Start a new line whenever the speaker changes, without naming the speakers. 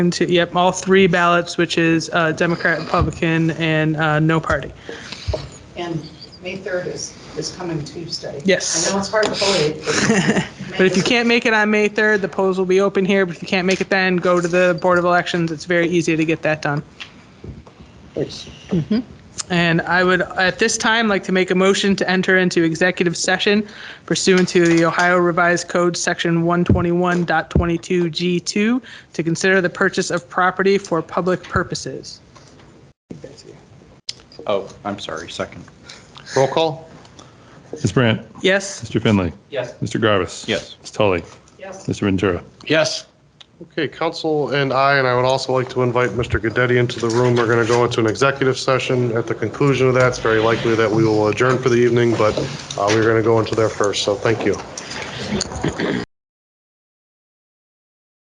And two- Yep, all three ballots, which is uh, Democrat, Republican, and uh, no party.
And May 3rd is, is coming Tuesday.
Yes.
I know it's hard to believe. But
But if you can't make it on May 3rd, the polls will be open here, but if you can't make it then, go to the Board of Elections. It's very easy to get that done.
It's
And I would, at this time, like to make a motion to enter into executive session pursuant to the Ohio Revised Code, Section 121.22G2, to consider the purchase of property for public purposes.
Oh, I'm sorry, second. Roll call?
Ms. Brandt?
Yes?
Mr. Finley?
Yes.
Mr. Garvis?
Yes.
Ms. Tully?
Yes.
Mr. Ventura?
Yes.
Okay, council and I, and I would also like to invite Mr. Gaddetti into the room. We're going to go into an executive session. At the conclusion of that, it's very likely that we will adjourn for the evening, but uh, we're going to go into there first, so thank you.